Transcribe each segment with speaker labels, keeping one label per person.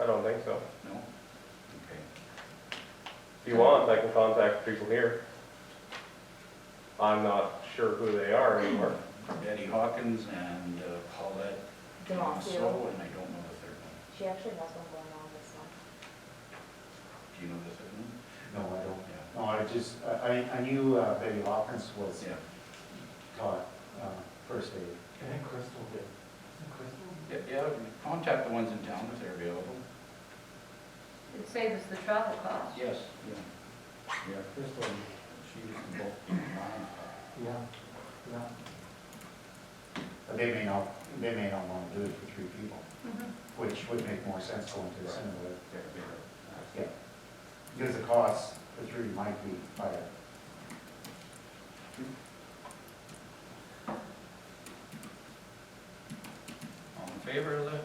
Speaker 1: I don't think so.
Speaker 2: No? Okay.
Speaker 1: If you want, I can contact people here. I'm not sure who they are anymore.
Speaker 2: Betty Hawkins and uh, Paulette
Speaker 3: Demoffio.
Speaker 2: Demasso, and I don't know the third one.
Speaker 3: She actually has one going on this month.
Speaker 2: Do you know the third one?
Speaker 4: No, I don't.
Speaker 2: Yeah.
Speaker 4: No, I just, I, I- I knew uh, Betty Hawkins was
Speaker 2: Yeah.
Speaker 4: taught uh, first aid.
Speaker 5: And Crystal did.
Speaker 2: Yeah, Yeah, contact the ones in town if they're available.
Speaker 6: It saves us the travel cost.
Speaker 2: Yes. Yeah,
Speaker 5: Yeah, Crystal,
Speaker 2: she was in both mine.
Speaker 5: yeah, yeah.
Speaker 4: But they may not, they may not want to do it for three people, which would make more sense going to the
Speaker 2: Right.
Speaker 4: center.
Speaker 2: They're bigger.
Speaker 4: Yeah. Because the cost for three might be uh, higher.
Speaker 2: All in favor of the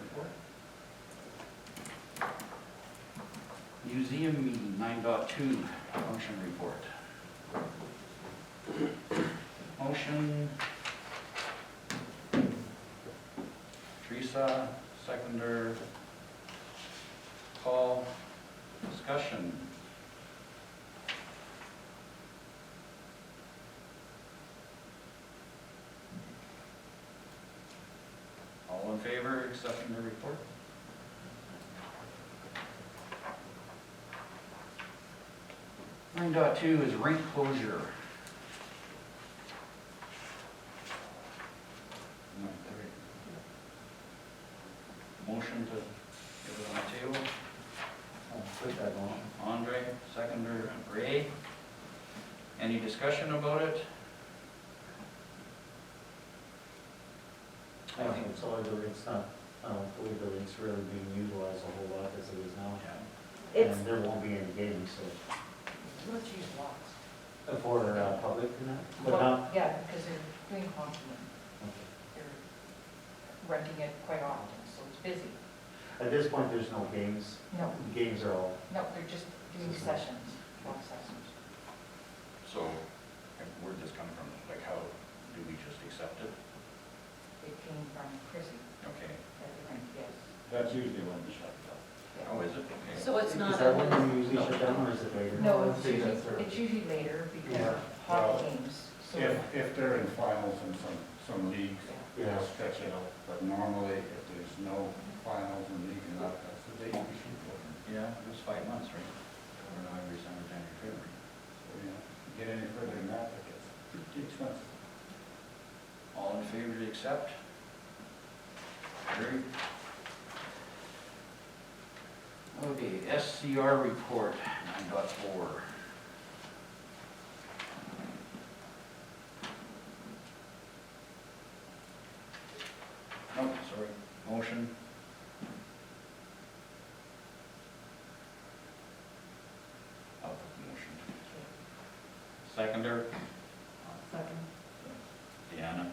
Speaker 2: report? Museum meeting nine dot two, motion report. Motion. Teresa, seconder. Paul, discussion. All in favor accepting the report? Nine dot two is rink closure. No, there- Motion to give it on the table.
Speaker 4: I'll put that on.
Speaker 2: Andre, seconder, and Ray. Any discussion about it?
Speaker 4: I don't think it's all, it's not, I don't believe the rink's really being utilized a whole lot as it is now.
Speaker 3: It's,
Speaker 4: And there won't be any games, so,
Speaker 7: Let's use lots.
Speaker 4: for uh, public, you know? but
Speaker 7: Well,
Speaker 4: not.
Speaker 7: Yeah, because they're doing constantly,
Speaker 4: okay.
Speaker 7: they're renting it quite often, so it's busy.
Speaker 4: At this point, there's no games.
Speaker 7: No,
Speaker 4: Games are all
Speaker 7: no, they're just doing sessions, long sessions.
Speaker 2: So, where'd this come from? Like, how, do we just accept it?
Speaker 7: It came from Chrissy
Speaker 2: Okay.
Speaker 7: at the rink, yes.
Speaker 5: That's usually when they shut it down.
Speaker 2: Oh, is it? Okay.
Speaker 6: So it's
Speaker 4: Is
Speaker 6: not,
Speaker 4: that
Speaker 6: a-
Speaker 4: when you usually shut down, or is it later?
Speaker 7: No, it's
Speaker 5: See, that's
Speaker 7: usually,
Speaker 5: her.
Speaker 7: it's usually later because
Speaker 4: Yeah.
Speaker 7: of hockey games, so,
Speaker 2: If, if they're in finals in some, some leagues,
Speaker 4: Yeah.
Speaker 2: they'll stretch it out, but normally if there's no finals in league and that, that's the date we shoot for. Yeah, it was five months, right? Or November, December, January, February. So, you know, get any further than that, it gets pretty expensive. All in favor to accept? Carried. Okay, SCR report, nine dot four. No, sorry, motion. I'll put the motion. Seconder,
Speaker 7: second.
Speaker 2: Deanna.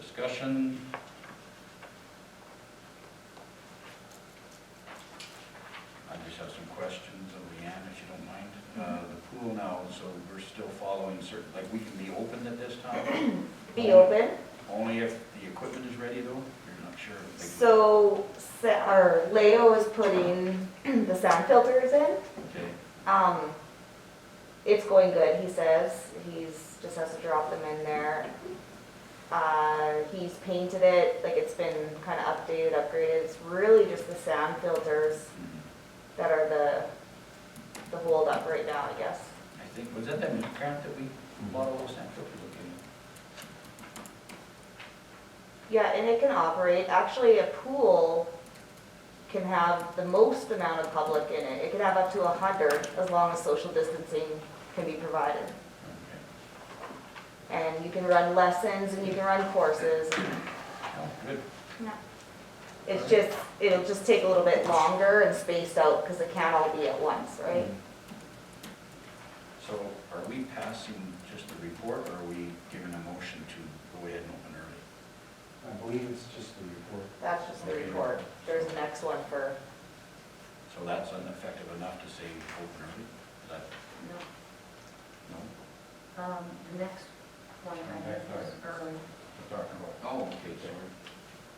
Speaker 2: Discussion. I just have some questions of Leanne, if you don't mind. Uh,
Speaker 3: Mm-hmm.
Speaker 2: the pool now, so we're still following certain, like, we can be open at this time?
Speaker 3: be open,
Speaker 2: Only if the equipment is ready, though? You're not sure? if they-
Speaker 3: so, sa- or Leo is putting the sound filters in.
Speaker 2: Okay,
Speaker 3: Um, it's going good, he says. He's, just has to drop them in there. Uh, he's painted it, like it's been kind of updated, upgraded. It's really just the sound filters
Speaker 2: mhm.
Speaker 3: that are the, the holdup right now, I guess.
Speaker 2: I think, was that that meat grant that we bought all those sample people in?
Speaker 3: Yeah, and it can operate, actually, a pool can have the most amount of public in it. It can have up to a hundred, as long as social distancing can be provided. And you can run lessons, and you can run courses.
Speaker 2: Oh, good.
Speaker 3: It's just, it'll just take a little bit longer and spaced out, because it can't all be at once, right?
Speaker 4: Mm-hmm.
Speaker 2: So are we passing just the report, or are we giving a motion to go ahead and open early?
Speaker 4: I believe it's just the report.
Speaker 3: That's just the report. There's the next one for,
Speaker 2: So that's ineffective enough to say open early? Is that, no?
Speaker 6: no, um, the next one I have is early.
Speaker 2: Oh, okay, sorry.